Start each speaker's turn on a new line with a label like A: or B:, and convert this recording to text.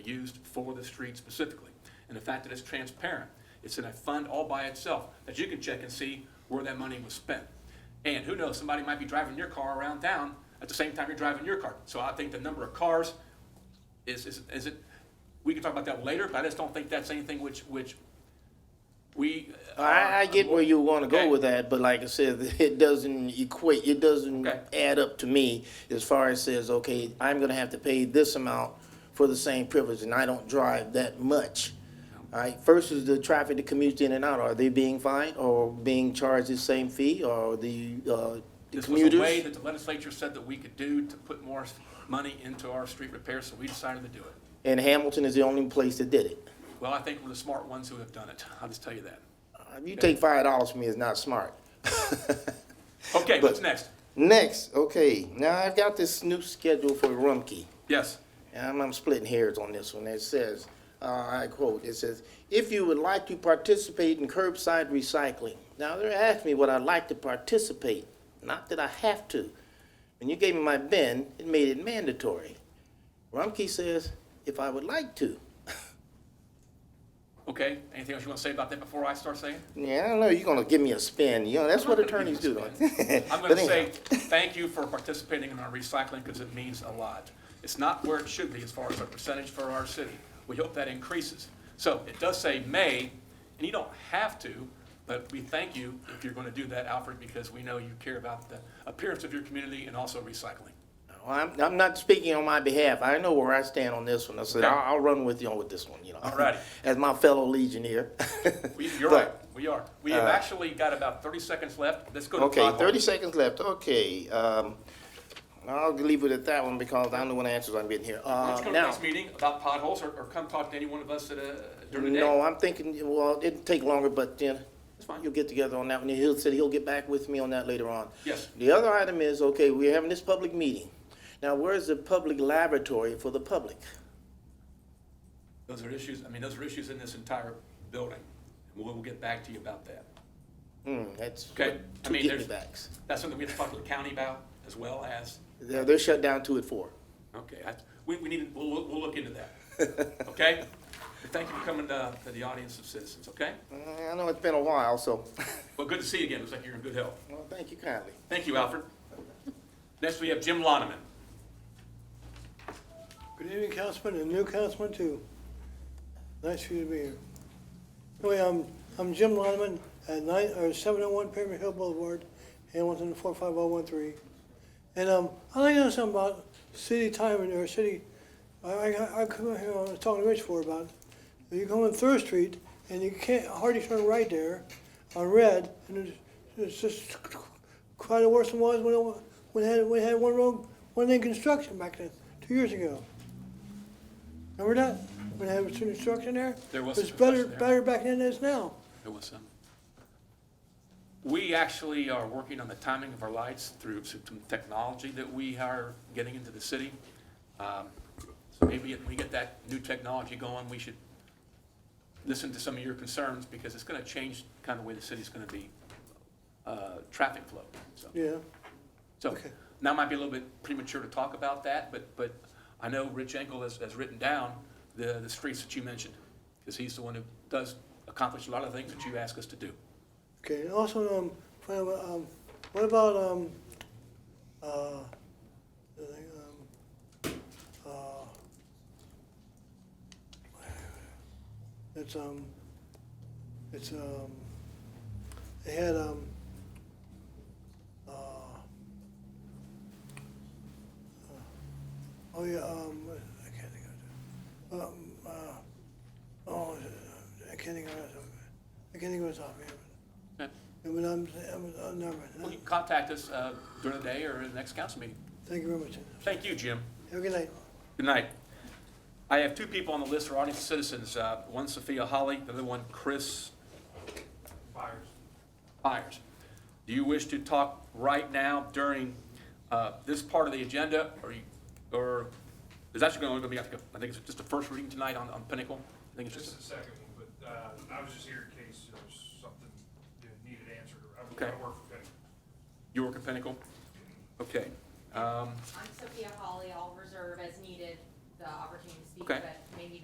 A: used for the street specifically. And the fact that it's transparent, it's in a fund all by itself that you can check and see where that money was spent. And who knows, somebody might be driving your car around town at the same time you're driving your car. So I think the number of cars is, is, is it, we can talk about that later, but I just don't think that's anything which, which we. uh,
B: I, I get where you want to go
A: Ah, Okay.
B: with that, but like I said, it doesn't equate. It doesn't
A: Okay.
B: add up to me as far as says, okay, I'm going to have to pay this amount for the same privilege, and I don't drive that much. All right. First is the traffic that commutes in and out. Are they being fined or being charged the same fee, or the, uh, the
A: This was a
B: commuters?
A: way that the legislature said that we could do to put more money into our street repairs, so we decided to do it.
B: and Hamilton is the only place that did it.
A: Well, I think we're the smart ones who have done it. I'll just tell you that.
B: If Uh, you take five dollars from me, it's not smart.
A: Okay, what's next?
B: Next, okay. Now I've got this new schedule for Rumkey.
A: Yes.
B: and I'm, I'm splitting hairs on this one. It says, uh, I quote, it says, if you would like to participate in curbside recycling. Now, they're asking me what I'd like to participate, not that I have to. When you gave me my bin, it made it mandatory. Rumkey says, if I would like to.
A: Okay, anything else you want to say about that before I start saying?
B: Yeah, I don't know, you're gonna give me a spin, you know, that's what
A: I'm gonna
B: attorneys
A: give you
B: do. don't
A: this,
B: they?
A: man. I'm
B: But
A: going to
B: anyhow.
A: say, thank you for participating in our recycling because it means a lot. It's not where it should be as far as a percentage for our city. We hope that increases. So it does say may, and you don't have to, but we thank you if you're going to do that, Alfred, because we know you care about the appearance of your community and also recycling.
B: Well, I'm, I'm not speaking on my behalf. I know where I stand on this one. I said,
A: Okay.
B: I'll, I'll run with you on with this one, you know.
A: All righty.
B: As my fellow Legionnaire.
A: We- You're
B: But-
A: right, we are. We have actually got about 30 seconds left. Let's go to
B: Okay,
A: Todd Hall.
B: thirty seconds left. Okay, um, I'll leave it at that one because I'm the one that answers I'm getting here.
A: Why don't
B: Uh,
A: you come to the
B: now,
A: next meeting about potholes or, or come talk to any one of us at a, during the day?
B: no, I'm thinking, well, it'd take longer, but then
A: That's fine.
B: you'll get together on that one. He'll said he'll get back with me on that later on.
A: Yes.
B: The other item is, okay, we're having this public meeting. Now, where's the public laboratory for the public?
A: Those are issues, I mean, those are issues in this entire building. We'll, we'll get back to you about that.
B: Hmm, that's
A: Okay, I
B: two
A: mean, there's,
B: get-me-backs.
A: that's something we have to talk to the county about as well as,
B: They're, they're shut down two at four.
A: okay, I, we, we need, to- we'll, look- we'll look into that. Okay? Thank you for coming uh, to, to the audience of citizens, okay?
B: Uh, I know it's been a while, so,
A: Well, good to see you again. Looks like you're in good health.
B: well, thank you kindly.
A: Thank you, Alfred. Next, we have Jim Loneman.
C: Good evening, Councilman, and new Councilman too. Nice for you to be here. Anyway, I'm, I'm Jim Loneman at nine, or seven oh one Pyramid Hill Boulevard, Hamilton four five oh one three. And, um, I'd like to know something about city timing or city, I, I, I come out here, I was talking to Rich for about, if you go on Third Street and you can't hardly turn right there on red, and it's, it's just quite worse than it was when it, when it had, when it had one road, one in construction back then, two years ago. Remember that? When I was in instruction there?
A: There was
C: It's
A: some
C: better,
A: instruction there.
C: better back then than it is now.
A: There was some. We actually are working on the timing of our lights through some technology that we are getting into the city. Um, So maybe if we get that new technology going, we should listen to some of your concerns because it's going to change kind of the way the city's going to be, uh, traffic flow. So-
C: Yeah.
A: So
C: Okay.
A: now might be a little bit premature to talk about that, but, but I know Rich Engel has, has written down the, the streets that you mentioned because he's the one who does accomplish a lot of things that you ask us to do.
C: Okay, and also, um, find out, um, what about, um, uh, the thing, um, uh, it's, um, it's, um, they had, um, uh, oh yeah, um, I can't think of it. Um, uh, oh, I can't think of it. I can't think of it off the top of my head. um,
A: Okay.
C: And when I'm, I'm, I'm uh, never,
A: Well, you can contact us uh, during the day or in the next council meeting.
C: thank you very much.
A: Thank you, Jim.
C: Have a good night.
A: Good night. I have two people on the list for audience of citizens, uh, one Sophia Holly, the other one Chris. Byers. Byers. Do you wish to talk right now during uh, this part of the agenda, or, you- or is that going to be, I think it's just a first reading tonight on on Pinnacle? I think it's
D: Just
A: just,
D: a second one, but uh, I was just here in case there was something you needed answered. I
A: Okay.
D: I work for Penny.
A: you work at Pinnacle? Okay. Um,
E: I'm Sophia Holly, I'll reserve as needed the opportunity to speak,
A: Okay.
E: but maybe